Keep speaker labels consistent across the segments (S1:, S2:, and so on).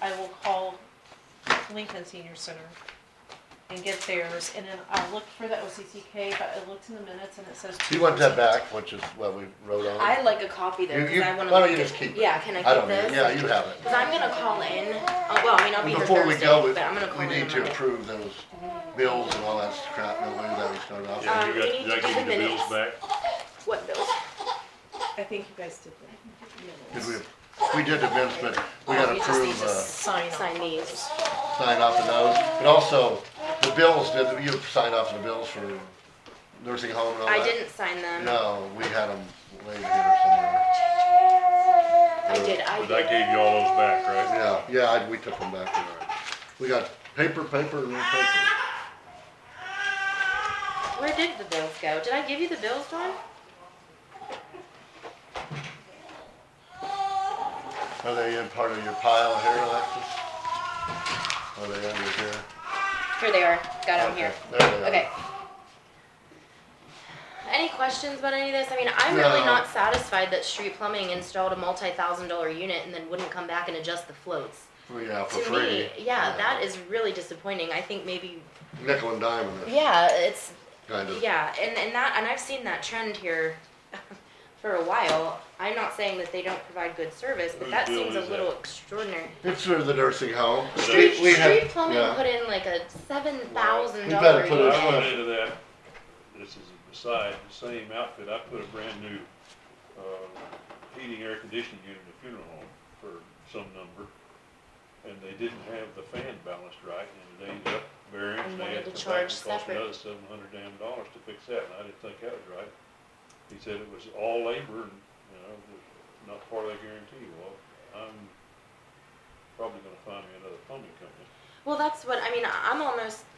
S1: I will call Lincoln Senior Center and get theirs, and then I looked for the OCCK, but I looked in the minutes and it says.
S2: He wants that
S1: 2%.
S2: back, which is what we wrote on.
S3: I'd like a copy though,
S2: You-
S3: because
S2: you-
S3: I wanna.
S2: why don't
S3: look
S2: you
S3: at-
S2: just keep it?
S3: Yeah, can I
S2: I don't,
S3: keep
S2: need-
S3: this?
S2: yeah, you have it.
S3: Cause I'm gonna call in, uh, well, I mean, I'll be here
S2: Before we
S3: Thursday,
S2: go,
S3: but I'm gonna call
S2: we,
S3: in
S2: we
S3: on
S2: need to
S3: Monday.
S2: approve those bills and all that crap, and we, that we started off with.
S3: Um,
S4: Yeah, you
S3: we
S4: got,
S3: need
S4: did I
S3: to
S4: give
S3: do
S4: you the bills
S3: minutes.
S4: back?
S3: What bills?
S1: I think you guys did that.
S2: Did we, we did the minutes, but we gotta
S3: You Oh, just need
S2: approve,
S3: to
S2: uh,
S1: Sign off.
S3: Sign these.
S2: sign off on those, but also, the bills, did, you signed off the bills for nursing home and all that?
S3: I didn't sign them.
S2: No, we had them way here somewhere.
S3: I did, I
S4: But I
S3: did.
S4: gave you all those back, right?
S2: Yeah, yeah, I- we took them back, all right. We got paper, paper, and more paper.
S3: Where did the bills go? Did I give you the bills, Dawn?
S2: Are they in part of your pile here, Alexis? Are they under here?
S3: Here they are. Got them
S2: Okay,
S3: here.
S2: There they are.
S3: Okay. Any questions about any of this? I mean, I'm really
S2: No.
S3: not satisfied that Street Plumbing installed a multi-thousand dollar unit and then wouldn't come back and adjust the floats.
S2: Well, Yeah, for
S3: To
S2: free.
S3: me, yeah, that is really disappointing. I think maybe,
S2: Nickel and diamond, it's
S3: yeah, it's,
S2: kind of.
S3: yeah, and, and that, and I've seen that trend here for a while. I'm not saying that they don't provide good service, but
S4: Whose
S3: that
S4: bill
S3: seems a
S4: is
S3: little
S4: that?
S3: extraordinary.
S2: It's for the nursing home.
S3: Street,
S2: We have-
S3: Street Plumbing
S2: yeah.
S3: put in like a seven thousand
S2: We better
S3: dollar
S2: put it
S3: unit.
S4: I
S2: on.
S4: went into that, this is a aside, the same outfit, I put a brand new, uh, heating, air conditioning unit in a funeral home for some number. And they didn't have the fan balanced right, and it ended up variance,
S3: And
S4: and they
S3: wanted
S4: had
S3: to
S4: to come back
S3: charge
S4: and cost
S3: separate.
S4: another seven hundred damn dollars to fix that, and I didn't think that was right. He said it was all labor and, you know, it was not part of the guarantee, well, I'm probably gonna find me another plumbing company.
S3: Well, that's what I mean. I'm almost,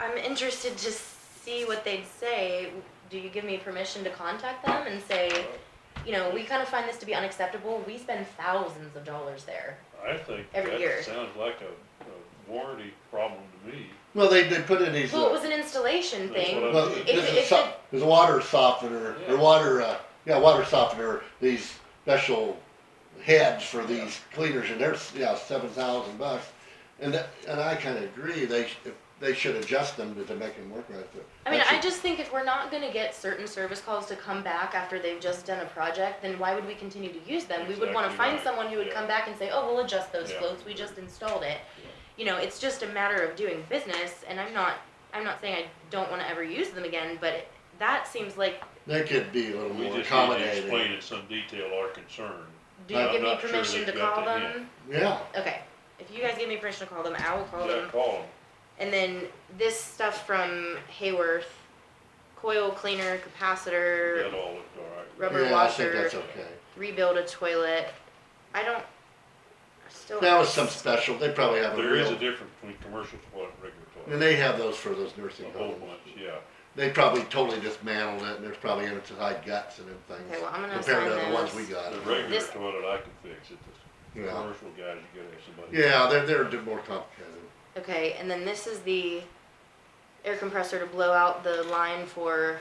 S3: I'm interested to see what they'd say. Do you give me permission to contact them and say, you know, we kind of find this to be unacceptable. We spend thousands of dollars there.
S4: I think
S3: Every year.
S4: that sounds like a, a warranty problem to me.
S2: Well, they, they put in these.
S3: Well, it
S2: uh,
S3: was an installation
S4: That's
S3: thing.
S4: what
S2: Well,
S4: If-
S2: this
S3: if
S2: is, so- there's a water softener,
S4: Yeah.
S2: or water, uh, yeah, water softener, these special heads for these cleaners, and they're, s- yeah, seven thousand bucks. And that, and I kinda agree, they, sh- if- they should adjust them to make them work right there.
S3: I mean, I
S2: That's-
S3: just think if we're not going to get certain service calls to come back after they've just done a project, then why would we continue to use them? We would want to
S4: Exactly
S3: find
S4: right.
S3: someone who would
S4: Yeah.
S3: come back and say, oh, we'll adjust those
S4: Yeah.
S3: floats. We just installed it. You know, it's just a matter of doing business, and I'm not, I'm not saying I don't want to ever use them again, but it, that seems like,
S2: They could be a little
S4: We
S2: more
S4: just need to
S2: accommodating.
S4: explain in some detail our concern.
S3: do you
S2: I'm
S3: give me
S4: not sure
S3: permission to
S4: they've got
S3: call
S4: that yet.
S3: them?
S2: Yeah,
S3: Okay, if you guys give me permission to call them, I will call
S4: Yeah,
S3: them.
S4: call 'em.
S3: And then this stuff from Hayworth, coil cleaner, capacitor,
S4: that all looked all right.
S3: rubber
S2: yeah, I think
S3: washer.
S2: that's okay.
S3: rebuild a toilet. I don't. I still.
S2: That was some special, they probably have a
S4: There is a
S2: real,
S4: difference between commercial toilet and
S2: and
S4: regular
S2: they have those for those
S4: toilet,
S2: nursing
S4: a whole
S2: homes.
S4: bunch, yeah.
S2: They probably totally dismantled it, and there's probably inside guts and everything.
S3: Okay, well, I'm gonna
S2: Compared
S3: assign
S2: to the ones we
S3: those.
S2: got.
S4: The regular
S3: This-
S4: toilet I can fix, it's the
S2: Yeah.
S4: commercial guys, you gotta have somebody.
S2: Yeah, they're, they're a bit more complicated.
S3: Okay, and then this is the air compressor to blow out the line for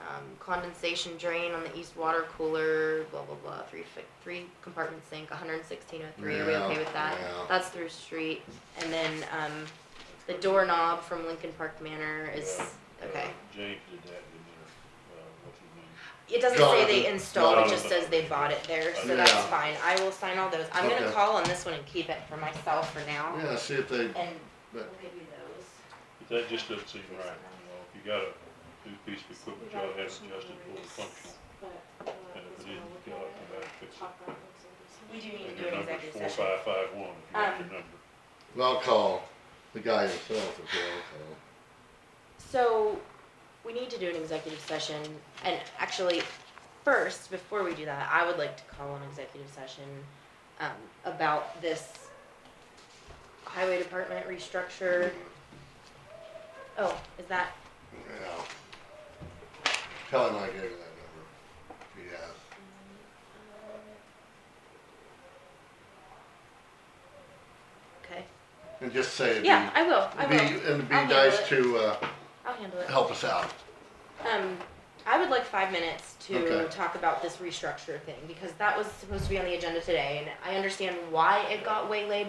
S3: um, condensation drain on the east water cooler. Blah blah blah. Three fi- three compartment sink. 11603. Are we okay
S2: Yeah,
S3: with that?
S2: yeah.
S3: That's through street. And then um, the doorknob from Lincoln Park Manor is
S4: Uh,
S3: okay.
S4: James did that, didn't he? Uh, what's his name?
S3: It doesn't
S2: Jonathan.
S3: say they installed, it just
S4: Jonathan.
S3: says they bought it there, so
S2: Yeah.
S3: that's fine. I will sign all those. I'm gonna
S2: Okay.
S3: call on this one and keep it for myself for now.
S2: Yeah, see if they,
S3: And we'll
S2: But-
S3: give you those.
S4: But that just doesn't seem right, you know, if you got a new piece of equipment, you ought to have it adjusted for the function, and if it isn't, you ought to come back and fix it.
S3: We do need to
S4: And
S3: do
S4: your
S3: an
S4: number's
S3: executive
S4: four
S3: session.
S4: five five one, if you got your
S3: Um,
S4: number.
S2: well, I'll call the guy himself as well,
S3: So, we need to do an executive session, and actually, first, before we do that, I would like to call an executive session, um, about this highway department restructure. Oh, is that,
S2: so, yeah. Tell him I gave you that number, if he has.
S3: okay.
S2: And just say it'd be,
S3: Yeah, I will, I
S2: it'd
S3: will.
S2: be, it'd be
S3: I'll handle
S2: nice
S3: it.
S2: to, uh,
S3: I'll handle it.
S2: help us out.
S3: Um, I would like five minutes to
S2: Okay.
S3: talk about this restructure thing, because that was supposed to be on the agenda today, and I understand why it got waylaid